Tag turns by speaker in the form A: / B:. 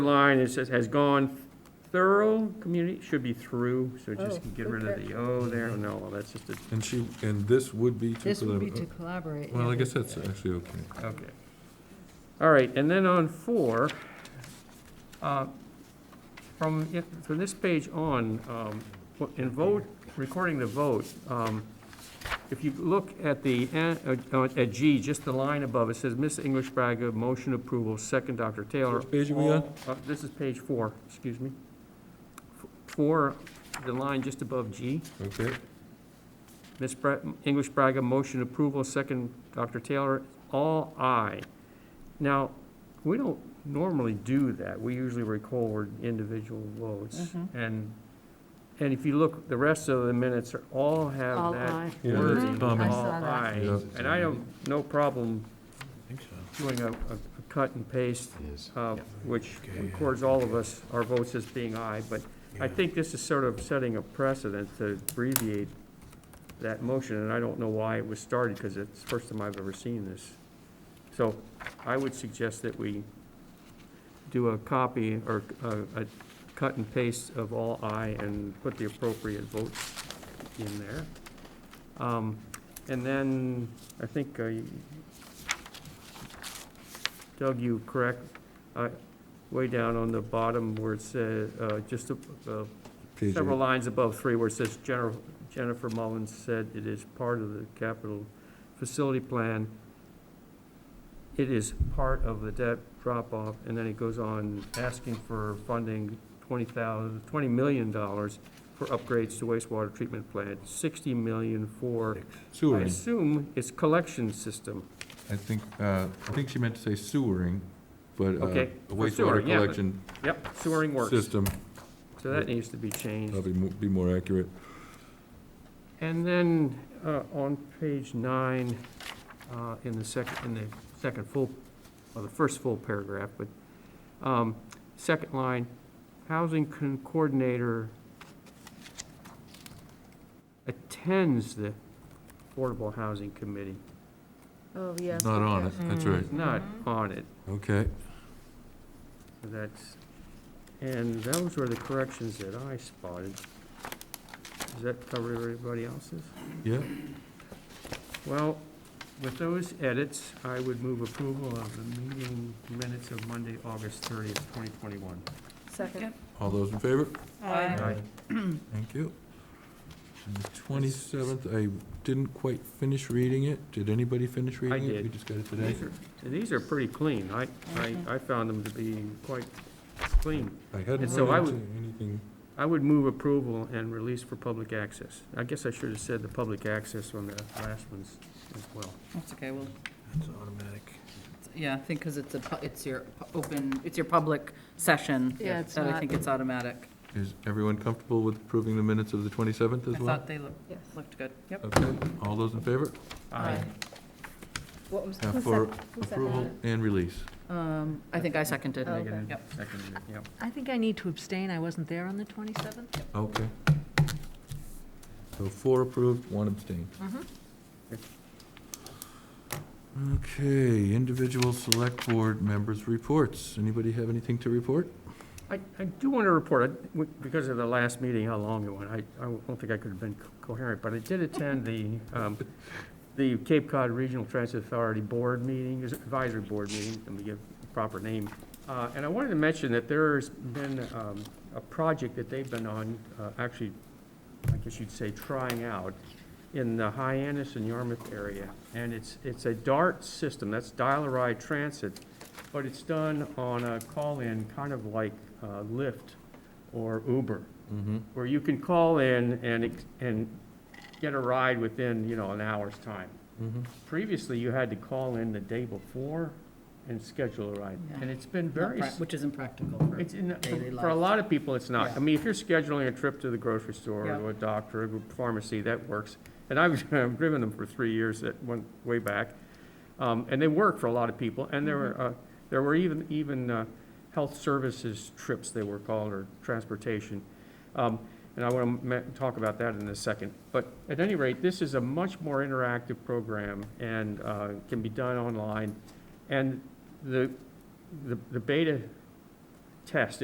A: line, it says, has gone thorough community, should be through, so just
B: Oh,
A: get rid of the O there, no, well, that's just a,
C: And she, and this would be to.
B: This would be to
C: collaborate.
B: collaborate.
C: Well, I
B: yeah.
C: guess that's actually okay.
A: okay. All right, and then on four, uh, from, yeah, from this page on, um, what- in vote, recording the vote, um, if you look at the, en- uh, at G, just the line above, it says, Miss English Braga, motion approval, second Dr. Taylor.
C: Which page are we on?
A: Uh, This is page four, excuse me. F- Four, the line just above G.
C: Okay,
A: Ms. Bra- English Braga, motion approval, second Dr. Taylor, all aye. Now, we don't normally do that. We usually record individual votes.
B: Mhm.
A: And, and if you look, the rest of the minutes are, all have
B: All
A: that
B: aye.
C: Yeah, that's
A: wording, all
C: common.
B: I saw that.
A: aye.
C: Yeah.
A: And I have no problem
D: think so.
A: doing a, a a cut and paste
D: It is.
A: uh,
D: Yeah.
A: which
D: Okay, yeah.
A: records all of us, our votes as being aye, but I think this is sort of setting a precedent to abbreviate that motion, and I don't know why it was started, because it's the first time I've ever seen this. So I would suggest that we do a copy or a, a cut and paste of all aye and put the appropriate votes in there. Um, and then, I think, uh, you- Doug, you correct, uh, way down on the bottom where it says, uh, just, uh,
C: page
A: several
C: eight.
A: lines above three where it says Jennifer, Jennifer Mullins said it is part of the capital facility plan. It is part of the debt drop-off, and then it goes on asking for funding twenty thousand, twenty million dollars for upgrades to wastewater treatment plant, sixty million for, I
C: Sewering,
A: assume it's collection system.
C: I think, uh, I think she meant to say sewering, but uh,
A: Okay,
C: a
A: for sewering,
C: wastewater
A: yeah, but-
C: collection
A: Yep, sewering works,
C: system,
A: so that needs to be changed.
C: probably mo- be more accurate.
A: And then, uh, on page nine, uh, in the second, in the second full, well, the first full paragraph, but, um, second line, housing con- coordinator attends the Affordable Housing Committee,
B: Oh, Mm-hmm. yeah.
C: Not on it, that's right,
A: is not on it,
C: okay.
A: so that's, and those were the corrections that I spotted. Does that cover everybody else's?
C: Yeah,
A: Well, with those edits, I would move approval of the meeting minutes of Monday, August 30th, 2021.
B: Second.
C: all those in favor?
B: Aye.
C: Thank you. And the twenty-seventh, I didn't quite finish reading it. Did anybody finish reading it?
A: did.
C: We just got it today.
A: These are- and These are pretty clean. I, I, I found them to be quite clean.
C: I hadn't
A: And so I
C: run
A: would-
C: into anything.
A: I would move approval and release for public access. I guess I should have said the public access on the last ones as well.
E: That's okay, well,
D: That's automatic.
E: it's- yeah, I think because it's a, pu- it's your pu- open, it's your public session.
B: Yeah, it's
E: That I
B: not-
E: think it's automatic.
C: Is everyone comfortable with approving the minutes of the twenty-seventh
E: I
C: as well?
E: thought they looked,
B: Yes.
E: looked good, yep.
C: Okay, all those in favor?
E: Aye.
B: What was,
C: Now
B: who's
C: for
B: that? who's that?
C: approval and release.
E: Um, I think I seconded.
B: Oh.
A: Negative,
E: Yep.
A: seconded, yep.
B: I think I need to abstain. I wasn't there on the 27th.
C: Okay. So four approved, one abstained.
B: Mhm.
C: Okay, individual select board members' reports. Anybody have anything to report?
A: I, I do want to report, I- w- because of the last meeting, how long it went, I, I don't think I could have been co- coherent, but I did attend the, um, the Cape Cod Regional Transit Authority Board meeting, is- advisory board meeting, let me give the proper name. Uh, and I wanted to mention that there's been, um, a project that they've been on, uh, actually, I guess you'd say trying out in the Hyannis and Yarmouth area. And it's, it's a DART system, that's dial-a-ride transit, but it's done on a call-in, kind of like uh, Lyft or Uber,
C: Mm-hmm.
A: where you can call in and, ex- and get a ride within, you know, an hour's time.
C: Mm-hmm.
A: Previously, you had to call in the day before and schedule a ride, and it's been
E: Not
A: very,
E: prac-
A: s-
E: Which is impractical. for-
A: it's in,
E: daily
A: for a
E: life.
A: lot of people, it's not.
E: Yeah.
A: I mean, if you're scheduling a trip to the grocery store
E: Yeah.
A: or a doctor or a pharmacy, that works. And I've, I've driven them for three years that went way back. Um, and they work for a lot of people. And there were, uh, there were even, even, uh, health services trips, they were called, or transportation. Um, and I want to talk about that in a second. But at any rate, this is a much more interactive program and, uh, can be done online. And the, the, the beta test